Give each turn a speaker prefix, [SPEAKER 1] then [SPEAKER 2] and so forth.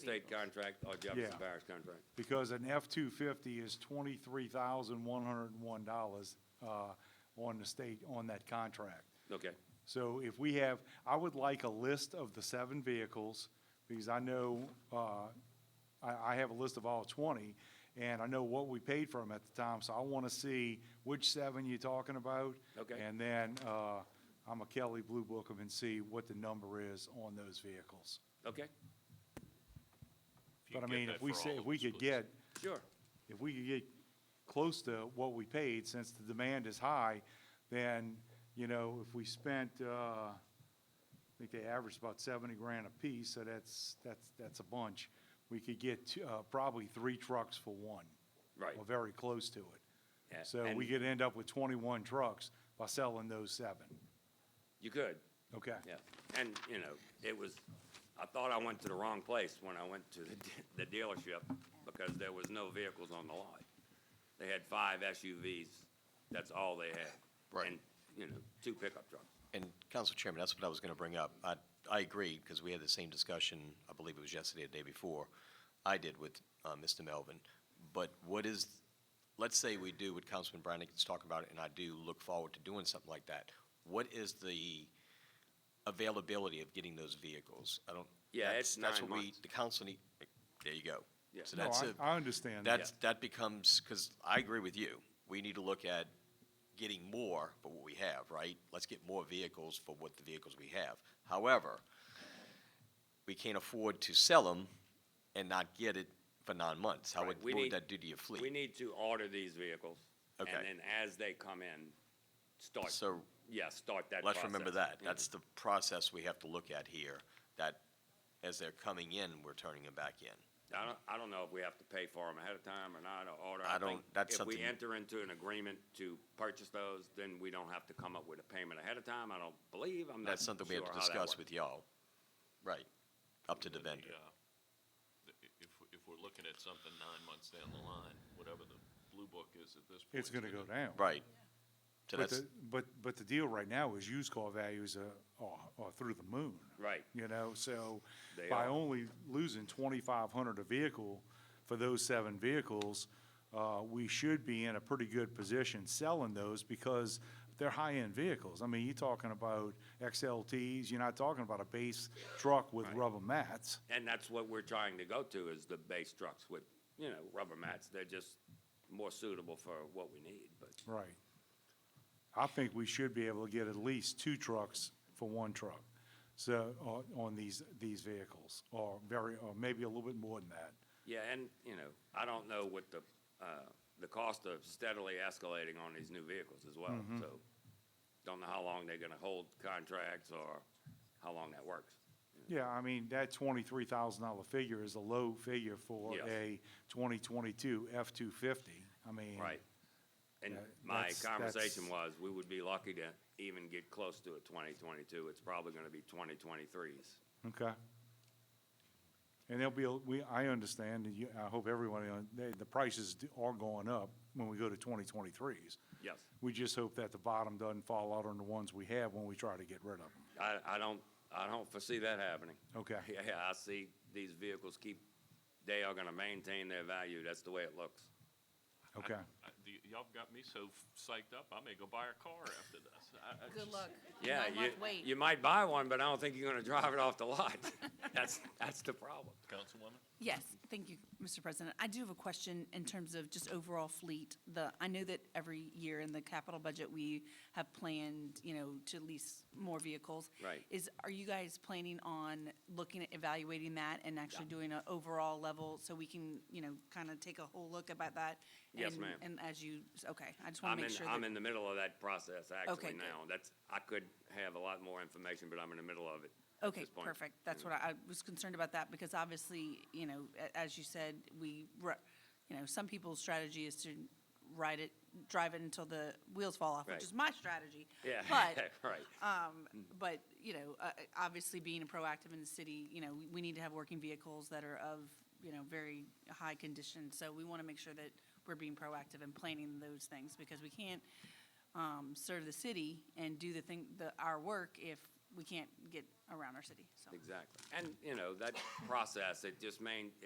[SPEAKER 1] State contract or
[SPEAKER 2] Yeah.
[SPEAKER 1] Jefferson Parish contract.
[SPEAKER 2] because an F-250 is $23,101 uh, on the state, on that contract.
[SPEAKER 1] Okay,
[SPEAKER 2] So if we have, I would like a list of the seven vehicles, because I know, uh, I, I have a list of all 20, and I know what we paid for them at the time, so I want to see which seven you're talking about.
[SPEAKER 1] Okay.
[SPEAKER 2] And then uh, I'm a Kelly Blue Book 'em and see what the number is on those vehicles.
[SPEAKER 1] okay,
[SPEAKER 3] you
[SPEAKER 2] But I
[SPEAKER 3] could get
[SPEAKER 2] mean,
[SPEAKER 3] that
[SPEAKER 2] if we
[SPEAKER 3] for
[SPEAKER 2] say,
[SPEAKER 3] all
[SPEAKER 2] if
[SPEAKER 3] of
[SPEAKER 2] we
[SPEAKER 3] us,
[SPEAKER 2] could
[SPEAKER 3] please.
[SPEAKER 2] get,
[SPEAKER 1] sure.
[SPEAKER 2] if we could get close to what we paid, since the demand is high, then, you know, if we spent, uh, I think they averaged about seventy grand apiece, so that's, that's, that's a bunch. We could get, two- uh, probably three trucks for one.
[SPEAKER 1] Right.
[SPEAKER 2] Or very close to it.
[SPEAKER 1] Yeah,
[SPEAKER 2] So we
[SPEAKER 1] and
[SPEAKER 2] could end up with twenty-one trucks by selling those seven.
[SPEAKER 1] You could,
[SPEAKER 2] Okay?
[SPEAKER 1] yeah. And, you know, it was, I thought I went to the wrong place when I went to the de- the dealership because there was no vehicles on the lot. They had five SUVs, that's all they had.
[SPEAKER 4] Right.
[SPEAKER 1] And, you know, two pickup trucks.
[SPEAKER 4] And Council Chairman, that's what I was going to bring up. I, I agree, because we had the same discussion, I believe it was yesterday or the day before, I did with uh, Mr. Melvin. But what is, let's say we do what Councilman Brannigan's talking about, and I do look forward to doing something like that. What is the availability of getting those vehicles? I don't.
[SPEAKER 1] Yeah,
[SPEAKER 4] that's-
[SPEAKER 1] it's
[SPEAKER 4] that's
[SPEAKER 1] nine
[SPEAKER 4] what we-
[SPEAKER 1] months.
[SPEAKER 4] The council need, there you go.
[SPEAKER 1] Yeah.
[SPEAKER 4] So
[SPEAKER 2] No,
[SPEAKER 4] that's
[SPEAKER 2] I,
[SPEAKER 4] a-
[SPEAKER 2] I understand that.
[SPEAKER 4] that's, that becomes, because I agree with you, we need to look at getting more for what we have, right? Let's get more vehicles for what the vehicles we have. However, we can't afford to sell them and not get it for nine months. How would,
[SPEAKER 1] Right, we
[SPEAKER 4] what would
[SPEAKER 1] need-
[SPEAKER 4] that do to your
[SPEAKER 1] We
[SPEAKER 4] fleet?
[SPEAKER 1] need to order these vehicles.
[SPEAKER 4] Okay.
[SPEAKER 1] And then as they come in, start,
[SPEAKER 4] So
[SPEAKER 1] yeah, start that
[SPEAKER 4] let's remember
[SPEAKER 1] process. Mm-hmm.
[SPEAKER 4] that. That's the process we have to look at here, that as they're coming in, we're turning them back in.
[SPEAKER 1] I don't, I don't know if we have to pay for them ahead of time or not, or order.
[SPEAKER 4] I don't-
[SPEAKER 1] think
[SPEAKER 4] that's
[SPEAKER 1] If
[SPEAKER 4] something-
[SPEAKER 1] we enter into an agreement to purchase those, then we don't have to come up with a payment ahead of time, I don't believe, I'm not
[SPEAKER 4] That's
[SPEAKER 1] sure how that
[SPEAKER 4] something we have to discuss with y'all. Right, up to the vendor.
[SPEAKER 3] Yeah. If, if we're looking at something nine months down the line, whatever the blue book is at this point.
[SPEAKER 2] It's gonna go down.
[SPEAKER 4] Right. So
[SPEAKER 2] But,
[SPEAKER 4] that's,
[SPEAKER 2] the, but, but the deal right now is used car values are, are, are through the moon,
[SPEAKER 1] Right,
[SPEAKER 2] you know, so
[SPEAKER 1] They
[SPEAKER 2] by
[SPEAKER 1] are.
[SPEAKER 2] only losing twenty-five hundred a vehicle for those seven vehicles, uh, we should be in a pretty good position selling those because they're high-end vehicles. I mean, you're talking about XLTs, you're not talking about a base truck with
[SPEAKER 1] Right.
[SPEAKER 2] rubber mats.
[SPEAKER 1] and that's what we're trying to go to, is the base trucks with, you know, rubber mats, they're just more suitable for what we need, but,
[SPEAKER 2] Right. I think we should be able to get at least two trucks for one truck, so, on- on these, these vehicles, or very, or maybe a little bit more than that.
[SPEAKER 1] yeah, and, you know, I don't know what the, uh, the cost of steadily escalating on these new vehicles as well,
[SPEAKER 4] Mm-hmm.
[SPEAKER 1] so don't know how long they're gonna hold contracts or how long that works.
[SPEAKER 2] Yeah, I mean, that twenty-three thousand dollar figure is a low figure for
[SPEAKER 1] Yes.
[SPEAKER 2] a twenty-twenty-two F-250. I mean.
[SPEAKER 1] Right. And
[SPEAKER 2] Yeah,
[SPEAKER 1] my
[SPEAKER 2] that's-
[SPEAKER 1] conversation
[SPEAKER 2] that's-
[SPEAKER 1] was, we would be lucky to even get close to a twenty twenty-two, it's probably gonna be twenty twenty-threes.
[SPEAKER 2] Okay. And there'll be, a- we, I understand, and you, I hope everyone, uh, they, the prices do- are going up when we go to twenty-twenty-threes.
[SPEAKER 1] Yes,
[SPEAKER 2] We just hope that the bottom doesn't fall out on the ones we have when we try to get rid of them.
[SPEAKER 1] I, I don't, I don't foresee that happening.
[SPEAKER 2] Okay.
[SPEAKER 1] Yeah, I see these vehicles keep, they are gonna maintain their value, that's the way it looks.
[SPEAKER 2] Okay.
[SPEAKER 3] I- I- the- Y'all got me so psyched up, I may go buy a car after this. I- I
[SPEAKER 5] Good
[SPEAKER 3] just-
[SPEAKER 5] luck.
[SPEAKER 1] Yeah,
[SPEAKER 5] Not
[SPEAKER 1] you,
[SPEAKER 5] much weight.
[SPEAKER 1] you might buy one, but I don't think you're gonna drive it off the lot. That's, that's the problem.
[SPEAKER 3] Councilwoman?
[SPEAKER 5] Yes, thank you, Mr. President. I do have a question in terms of just overall fleet. The, I know that every year in the capital budget, we have planned, you know, to lease more vehicles.
[SPEAKER 1] Right.
[SPEAKER 5] Is, are you guys planning on looking at evaluating that and actually doing an overall level so we can, you know, kind of take a whole look about that?
[SPEAKER 1] Yes,
[SPEAKER 5] And-
[SPEAKER 1] ma'am.
[SPEAKER 5] And as you, okay, I just want
[SPEAKER 1] I'm
[SPEAKER 5] to make
[SPEAKER 1] in,
[SPEAKER 5] sure.
[SPEAKER 1] I'm
[SPEAKER 5] that-
[SPEAKER 1] in the middle of that process
[SPEAKER 5] Okay,
[SPEAKER 1] actually
[SPEAKER 5] good.
[SPEAKER 1] now. That's, I could have a lot more information, but I'm in the middle of it. at
[SPEAKER 5] Okay,
[SPEAKER 1] this point.
[SPEAKER 5] perfect. That's what I, I was concerned about that because obviously, you know, a- as you said, we, ru- you know, some people's strategy is to ride it, drive it until the wheels fall off,
[SPEAKER 1] Right.
[SPEAKER 5] which is my strategy.
[SPEAKER 1] Yeah,
[SPEAKER 5] But,
[SPEAKER 1] right.
[SPEAKER 5] but, you know, uh, uh, obviously being proactive in the city, you know, we, we need to have working vehicles that are of, you know, very high condition. So we want to make sure that we're being proactive and planning those things because we can't, um, serve the city and do the thing, the, our work if we can't get around our city, so.
[SPEAKER 1] Exactly. And, you know, that process, it just mean,